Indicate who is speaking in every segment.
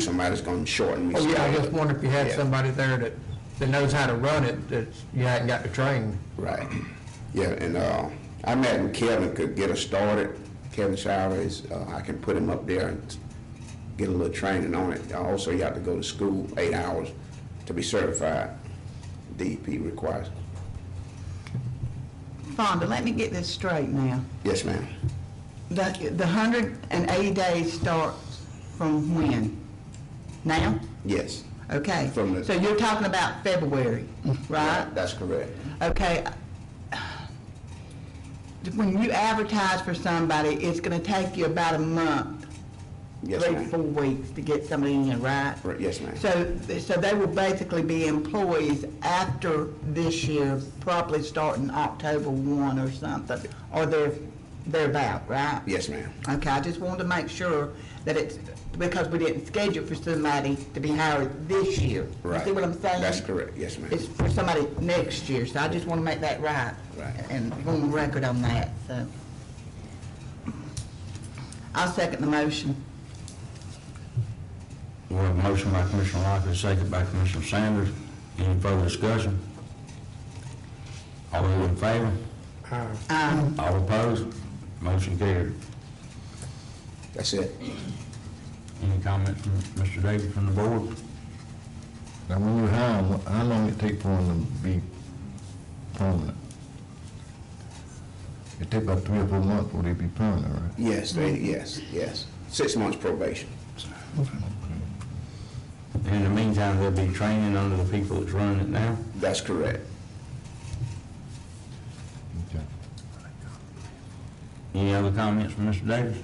Speaker 1: somebody's gonna shorten me.
Speaker 2: Oh,
Speaker 3: Well, yeah, I just wonder if you had
Speaker 1: Yeah.
Speaker 3: somebody there that, that knows how to run it, that you hadn't got to train.
Speaker 1: Right. Yeah, and uh, I imagine Kevin could get us started. Kevin Shire is, uh, I can put him up there and get a little training on it. Also, you have to go to school eight hours to be certified. E DEP requires.
Speaker 2: Fonda, let me get this straight now.
Speaker 1: Yes, ma'am.
Speaker 2: The, the hundred and eighty days starts from when? Now?
Speaker 1: Yes.
Speaker 2: Okay.
Speaker 1: From the-
Speaker 2: So you're talking about February, right?
Speaker 1: That's correct.
Speaker 2: Okay. When you advertise for somebody, it's gonna take you about a month,
Speaker 1: Yes,
Speaker 2: three, four
Speaker 1: ma'am.
Speaker 2: weeks to get somebody in, right?
Speaker 1: Right, Yes, ma'am.
Speaker 2: So, so they will basically be employees after this year, probably starting October one or something, or they're, they're about, right?
Speaker 1: Yes, ma'am.
Speaker 2: Okay, I just wanted to make sure that it's, because we didn't schedule for somebody to be hired this year.
Speaker 1: Right.
Speaker 2: You see what I'm saying?
Speaker 1: That's correct. Yes, ma'am.
Speaker 2: It's for somebody next year, so I just want to make that right.
Speaker 1: Right.
Speaker 2: And go on record on that, so. I'll second the motion.
Speaker 4: We have a motion by Commissioner Lockley, second by Commissioner Sanders. Any further discussion? All those in favor?
Speaker 2: Um,
Speaker 4: All opposed? Motion carried.
Speaker 1: That's it.
Speaker 4: Any comments from Mr. Davis from the board?
Speaker 5: Now, when you hire them, how long it take for them to be permanent? It take about three or four months for they be permanent, right?
Speaker 1: Yes, they, yes, yes. Six months probation.
Speaker 4: In the meantime, there'll be training under the people that's running it now.
Speaker 1: That's correct.
Speaker 5: Okay.
Speaker 4: Any other comments from Mr. Davis?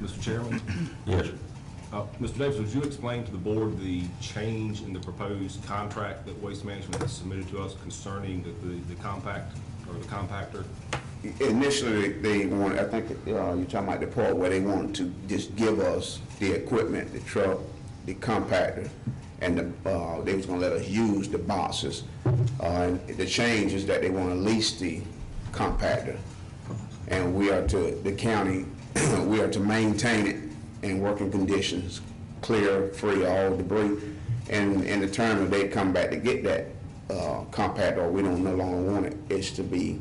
Speaker 6: Mr. Chairman,
Speaker 4: Yes.
Speaker 6: uh, Mr. Davis, would you explain to the board the change in the proposed contract that Waste Management has submitted to us concerning the- the the compact or the compactor?
Speaker 1: Initially, they wanted, I think, uh, you're talking about the part where they wanted to just give us the equipment, the truck, the compactor, and the, uh, they was gonna let us use the boxes. Uh, and the change is that they wanna lease the compactor. And we are to, the county, we are to maintain it in working conditions, clear, free of all debris. And in the term that they come back to get that, uh, compactor, or we don't no longer want it, it's to be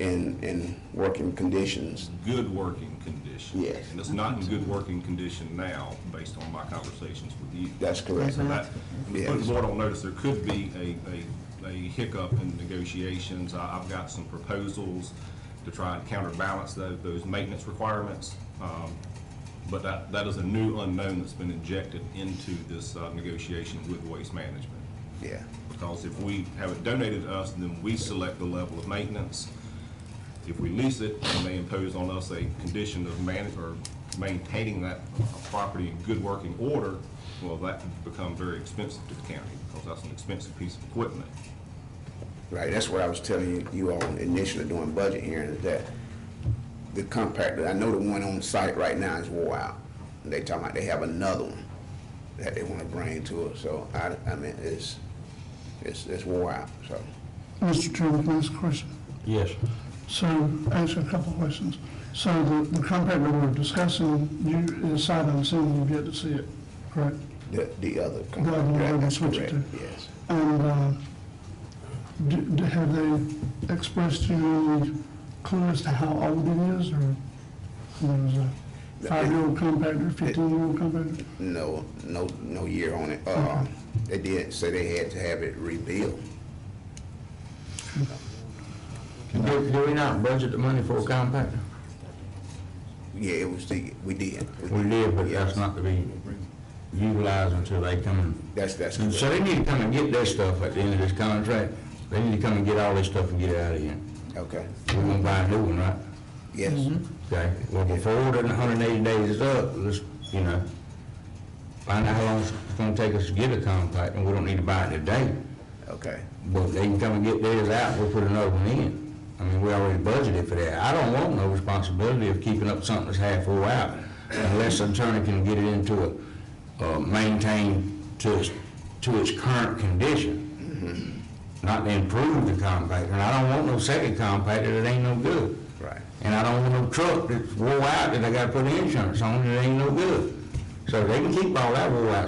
Speaker 1: in, in working conditions.
Speaker 6: Good working condition.
Speaker 1: Yes.
Speaker 6: And it's not in good working condition now, based on my conversations with you.
Speaker 1: That's correct.
Speaker 6: So that,
Speaker 1: Yes.
Speaker 6: put the board on notice, there could be a, a, a hiccup in negotiations. I, I've got some proposals to try and counterbalance those, those maintenance requirements. Um, But that, that is a new unknown that's been injected into this uh, negotiation with Waste Management.
Speaker 1: Yeah,
Speaker 6: Because if we have it donated to us, then we select the level of maintenance. If we lease it, then they impose on us a condition of man, or maintaining that property in good working order, well, that can become very expensive to the county, because that's an expensive piece of equipment.
Speaker 1: right, that's what I was telling you, you all initially doing budget hearing, is that the compactor, I know the one on site right now is wore out. And They talking about they have another one that they wanna bring to us, so I, I mean, it's, it's, it's wore out, so.
Speaker 7: Mr. Chairman, can I ask a question?
Speaker 4: Yes.
Speaker 7: So, actually, a couple of questions. So the, the contract that we're discussing, you decided, I'm assuming you've yet to see it, correct?
Speaker 1: The, the other
Speaker 7: The other one
Speaker 1: compactor,
Speaker 7: we're
Speaker 1: that-
Speaker 7: gonna
Speaker 1: that's
Speaker 7: switch it
Speaker 1: correct,
Speaker 7: to.
Speaker 1: yes.
Speaker 7: And, uh, do, do- have they expressed to you any clue as to how old it is, or, you know, is it a five-year-old compactor, fifteen-year-old compactor?
Speaker 1: No, no, no year on it. Uh, they did say they had to have it rebuilt.
Speaker 4: Do, do we not budget the money for a compactor?
Speaker 1: Yeah, it was the, we did.
Speaker 4: We did, but
Speaker 1: Yes.
Speaker 4: that's not to be utilized until they come and
Speaker 1: That's, that's
Speaker 4: And So
Speaker 1: correct.
Speaker 4: they need to come and get their stuff at the end of this contract. They need to come and get all this stuff and get it out of here.
Speaker 1: Okay,
Speaker 4: We're gonna buy a new one, right?
Speaker 1: yes,
Speaker 7: Mm-hmm.
Speaker 4: Okay, well, before the hundred and eighty days is up, let's, you know, find out how long it's gonna take us to get a compact, and we don't need to buy it today.
Speaker 1: okay.
Speaker 4: But they can come and get theirs out, we'll put another one in. I mean, we already budgeted for that. I don't want no responsibility of keeping up something that's half wore out unless the attorney can get it into a, uh, maintain to its, to its current condition. Not to improve the compactor. And I don't want no second compactor that ain't no good.
Speaker 1: Right.
Speaker 4: And I don't want no truck that's wore out that I gotta put insurance on that ain't no good. So they can keep all that roll out